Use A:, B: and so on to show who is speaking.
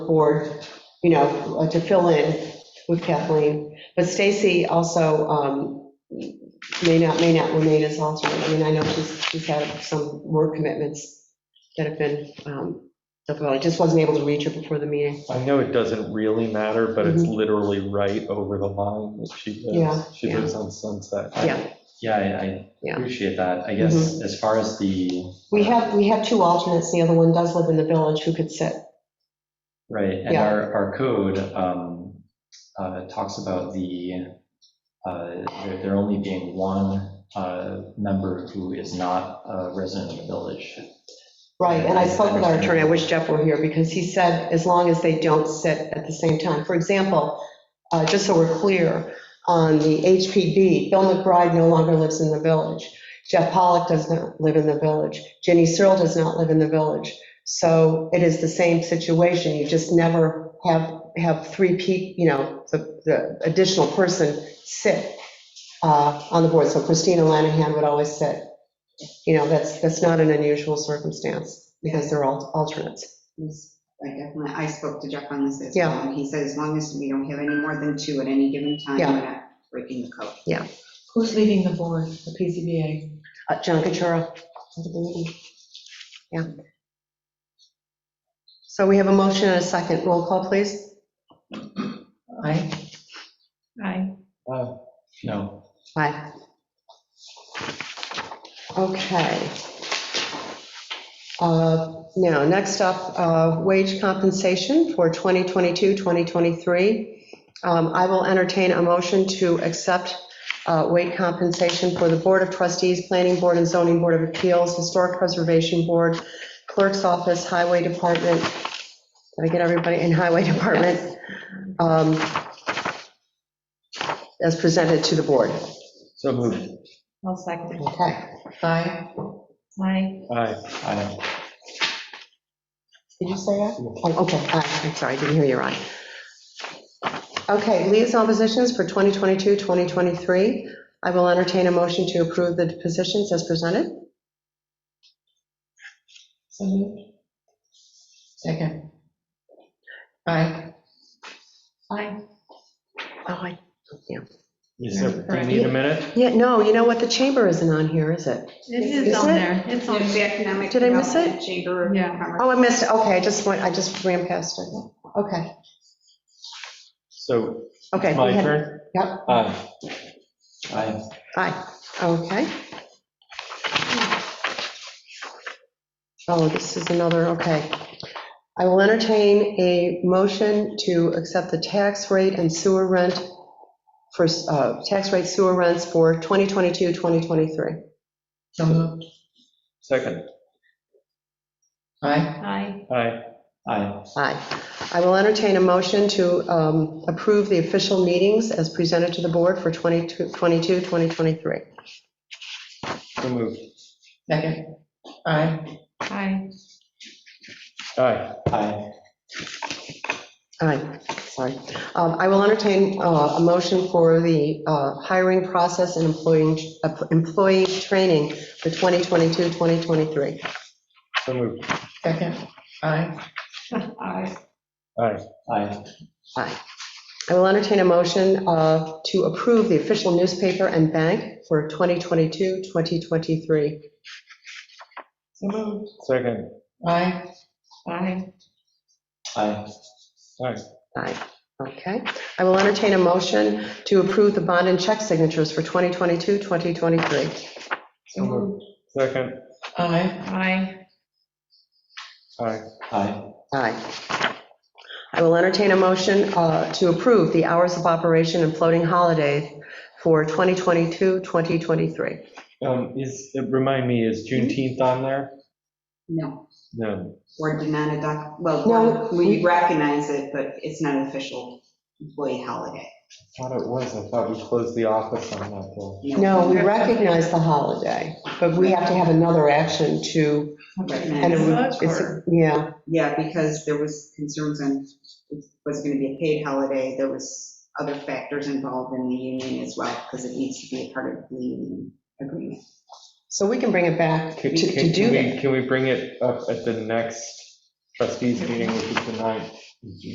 A: board, you know, uh, to fill in with Kathleen. But Stacy also um, may not, may not remain as alternate. I mean, I know she's, she's had some work commitments that have been, um, difficult. I just wasn't able to reach her before the meeting.
B: I know it doesn't really matter, but it's literally right over the line that she
A: Mm-hmm. Yeah,
B: lives. She
A: yeah.
B: lives on Sunset.
A: Yeah,
C: Yeah, I- I
A: Yeah. Mm-hmm.
C: appreciate that. I guess as far as the.
A: we have, we have two alternates. The other one does live in the village who could sit.
C: Right, and
A: Yeah.
C: our, our code um, uh, talks about the, uh, there there only being one uh, member who is not a resident of the village.
A: Right, and I spoke with our attorney, I wish Jeff were here, because he said, as long as they don't sit at the same time. For example, uh, just so we're clear, on the HPB, Bill McBride no longer lives in the village. Jeff Pollock does not live in the village. Jenny Searle does not live in the village. So it is the same situation, you just never have, have three people, you know, the, the additional person sit uh, on the board. So Christina Lanahan would always sit you know, that's, that's not an unusual circumstance because they're all alternates.
D: Yes, I definitely, I spoke to Jeff on this as well,
A: Yeah.
D: and he said as long as we don't have any more than two at any given time,
A: Yeah.
D: we're not breaking the code.
E: Who's leading the board, the PCBA?
A: Uh, John Cachura. for the meeting. Yeah. So we have a motion and a second. Roll call, please.
E: Aye.
F: Aye.
B: Uh,
C: No,
A: Aye. Okay. Uh, Now, next up, uh, wage compensation for 2022, 2023. Um, I will entertain a motion to accept uh, wage compensation for the Board of Trustees, Planning Board and Zoning Board of Appeals, Historic Preservation Board, Clerk's Office, Highway Department, did I get everybody in Highway Department? Um, As presented to the board.
B: So moved.
F: I'll second.
A: Okay.
E: Aye.
F: Aye.
B: Aye.
C: I,
A: Did you say that? Oh, Okay, aye, I'm sorry, I didn't hear you right. Okay, liaison positions for 2022, 2023. I will entertain a motion to approve the positions as presented.
E: So moved. Second. Aye.
F: Aye.
A: Oh, I, yeah.
B: You said, do you need a minute?
A: Yeah, no, you know what, the chamber isn't on here, is it?
F: It
A: Is
F: is on
A: it?
F: there. It's on.
D: There's the Economic
A: Did I miss it?
D: Development Chamber of
F: Yeah.
D: Commerce.
A: Oh, I missed, it. okay, I just went, I just ran past it. Okay,
B: So
A: okay. go
B: my
A: ahead.
B: turn?
A: Yep,
B: Aye.
C: I,
A: aye, okay. Oh, this is another, okay. I will entertain a motion to accept the tax rate and sewer rent for, uh, tax rate sewer rents for 2022, 2023.
E: So moved.
B: Second.
E: Aye.
F: Aye.
B: Aye.
C: I,
A: Aye. I will entertain a motion to um, approve the official meetings as presented to the board for 22, 2023.
B: So moved.
E: Second. Aye.
F: Aye.
B: Aye.
C: I,
A: Aye, sorry. Um, I will entertain uh, a motion for the uh, hiring process and employee, employee training for 2022, 2023.
B: So moved.
E: Second. Aye.
F: Aye.
B: Aye.
C: I,
A: Aye. I will entertain a motion uh, to approve the official newspaper and bank for 2022, 2023.
F: So moved.
B: Second.
E: Aye.
F: Aye.
C: I,
B: Aye.
A: Aye, okay. I will entertain a motion to approve the bond and check signatures for 2022, 2023.
F: So
A: Mm-hmm.
F: moved.
B: Second.
E: Aye.
F: Aye.
B: Aye.
C: I,
A: Aye. I will entertain a motion uh, to approve the hours of operation and floating holidays for 2022, 2023.
B: Um, is, remind me, is
A: Mm-hmm.
B: Juneteenth on there?
D: No,
B: No.
D: board did not adopt,
A: No,
D: well, we recognize it, but it's not an official employee holiday.
B: Thought it was. I thought we closed the office on that day.
A: No, we recognize the holiday, but we have to have another action to, and it
D: Recognize.
A: would- it's, yeah,
D: Yeah, because there was concerns on, it was going to be a paid holiday, there was other factors involved in the union as well, because it needs to be a part of the union agreement.
A: so we can bring it back to
B: Can-
A: to
B: can-
A: do
B: can we-
A: that.
B: Can we bring it up at the next trustees meeting, which is the ninth? Yeah.